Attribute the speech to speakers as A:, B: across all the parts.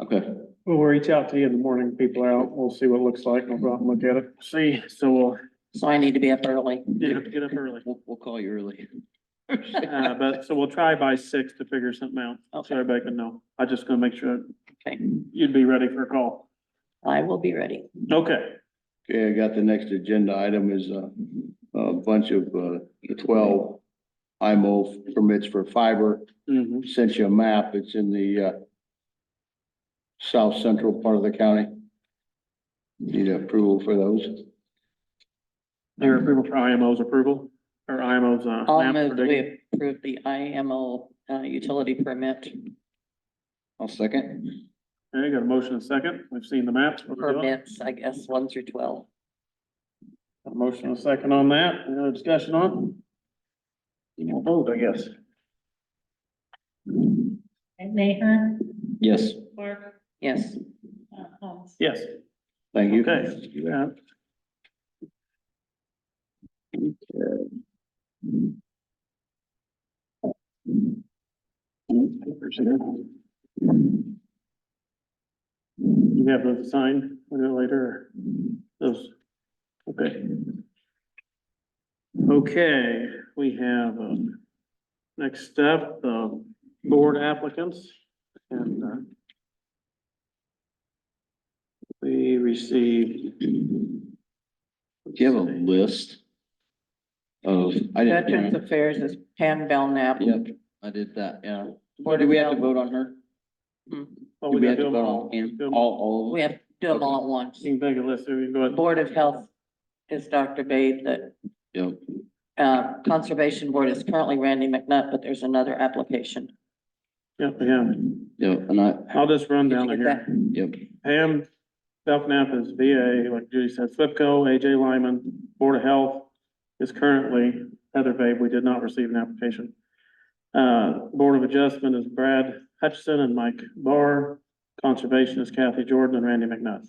A: Okay,
B: We'll reach out to you in the morning, people are out, we'll see what it looks like, we'll go out and look at it. See, so we'll
C: So I need to be up early.
B: get up, get up early.
A: we'll, we'll call you early.
B: Uh, but, so we'll try by six to figure something out, so
C: Okay,
B: everybody can know. I just gonna make sure
C: Okay.
B: you'd be ready for a call.
C: I will be ready.
B: Okay,
A: Okay, I got the next agenda item is a, a bunch of, uh, the twelve IMO permits for fiber.
C: Mm-hmm.
B: Mhm.
A: Sent you a map. It's in the, uh, south central part of the county. Need approval for those.
B: Your approval for IMO's approval, or IMO's, uh.
C: I'll
B: map
C: move that
B: predict-
C: we approve the IMO uh, utility permit
A: I'll second.
B: Okay, got a motion and a second, we've seen the maps. What we're doing.
C: permits, I guess, one through twelve.
B: Got a motion and a second on that, any other discussion on? You know, vote, I guess.
D: And Mayor,
A: Yes,
D: Clark,
C: Yes,
D: uh, Holmes.
B: Yes.
A: thank you.
B: Okay, yeah. You have those signed a little later, those, okay. Okay, we have, um, next step, the board applicants and, uh, we received. Do
A: Do you have a list? Of, I
C: Veterans
A: didn't,
C: Affairs is Pam Belknap.
A: yep, I did that, yeah. Or do we have to vote on her?
B: Well,
A: Do
B: Oh, we
A: we
B: gotta
A: have
B: do
A: to
B: them
A: vote
B: all.
A: on him?
B: Do
A: All,
B: 'em all.
A: all?
C: We have to do them all at once.
B: You can take a list, so we can go ahead.
C: Board of Health is Dr. Bade, the
A: Yep.
C: uh, Conservation Board is currently Randy McNutt, but there's another application.
B: Yep, we have it.
A: Yep, and I,
B: I'll just run
C: Did you
B: down
C: get
B: here.
A: yep,
B: Pam Belknap is VA, like Judy said, Flipco, AJ Lyman, Board of Health is currently Heather Babe. We did not receive an application. Uh, Board of Adjustment is Brad Hutchison and Mike Barr. Conservation is Kathy Jordan and Randy McNutt.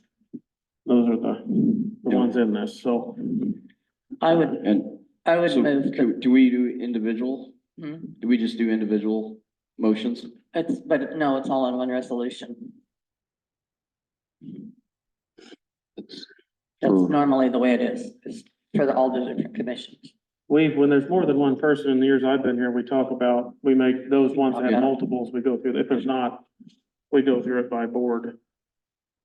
B: Those are the, the ones in this, so.
C: I would,
A: and
C: I would
A: so
C: move,
A: do- do we do individual?
C: Hmm.
A: Do we just do individual motions?
C: it's, but no, it's all in one resolution.
A: It's-
C: That's
A: Sure.
C: normally the way it is, is for the- all the different commissions.
B: We've, when there's more than one person in the years I've been here, we talk about, we make those ones that
C: Yeah.
B: have multiples, we go through. If there's not, we go through it by board.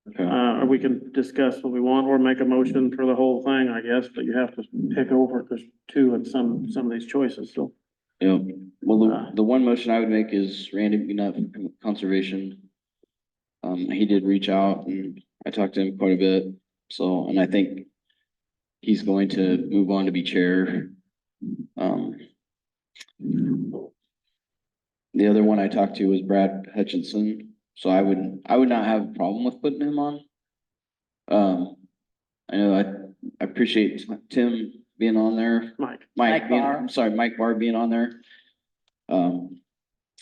B: Uh,
A: Okay.
B: or we can discuss what we want or make a motion for the whole thing, I guess, but you have to pick over because two in some, some of these choices, so.
A: Yep, well, the, the one motion I would make is Randy McNutt from Conservation. Um, he did reach out and I talked to him quite a bit, so, and I think he's going to move on to be chair. Um. The other one I talked to was Brad Hutchinson, so I would, I would not have a problem with putting him on. Um, I know I, I appreciate Tim being on there,
B: Mike,
A: Mike
C: Mike
A: being,
C: Barr.
A: I'm sorry, Mike Barr being on there. Um.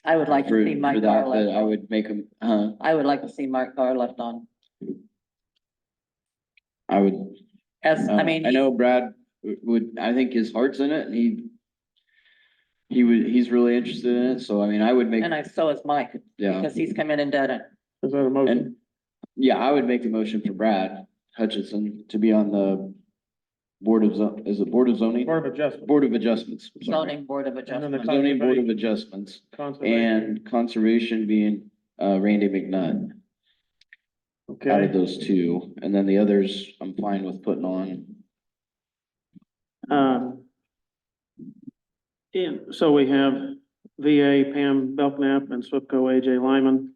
C: I would like
A: for-
C: to see
A: for
C: Mike
A: that,
C: Garland.
A: But I would make him, uh,
C: I would like to see Mark Gar left on,
A: I would,
C: as,
A: uh,
C: I mean,
A: I know Brad w- would, I think his heart's in it and he. He would, he's really interested in it, so I mean, I would make,
C: and I, so is Mike,
A: yeah,
C: because he's come in and done it.
B: is that a motion?
A: and, yeah, I would make the motion for Brad Hutchinson to be on the. Board of Zo- is it Board of Zoning?
B: Board of Adjustment.
A: Board of Adjustments. I'm sorry.
C: Zoning Board of
B: then the
C: Adjustment.
A: Zoning Board of Adjustments.
B: Conservation.
A: And conservation being uh Randy McNutt out of
B: Okay,
A: those two, and then the others, I'm fine with putting on.
B: um. And so we have VA, Pam Belknap and Swipco AJ Lyman.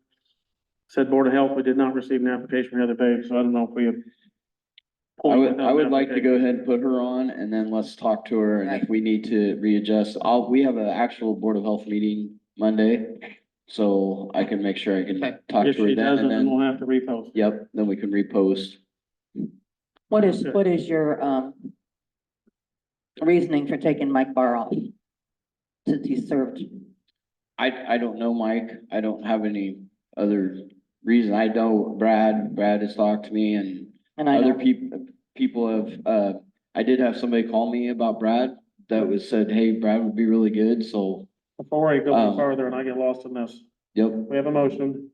B: Said Board of Health, we did not receive an application from Heather Page, so I don't know if we have.
A: I would, I would like to go ahead and put her on, and then let's talk to her, and if we need to readjust, I'll, we have an actual Board of Health meeting Monday. So I can make sure I can
C: Okay.
A: talk
B: If
A: to her
B: she
A: then,
B: doesn't,
A: and
B: then
A: then,
B: we'll have to repost.
A: yep, then we can repost.
C: What is, what is your, um, reasoning for taking Mike Barr off? Since he served,
A: I, I don't know, Mike. I don't have any other reason. I know Brad, Brad has talked to me and
C: and I
A: Other
C: know,
A: people, people have, uh, I did have somebody call me about Brad that was said, hey, Brad would be really good, so,
B: Before I go any
A: Um,
B: farther and I get lost in this,
A: yep,
B: we have a motion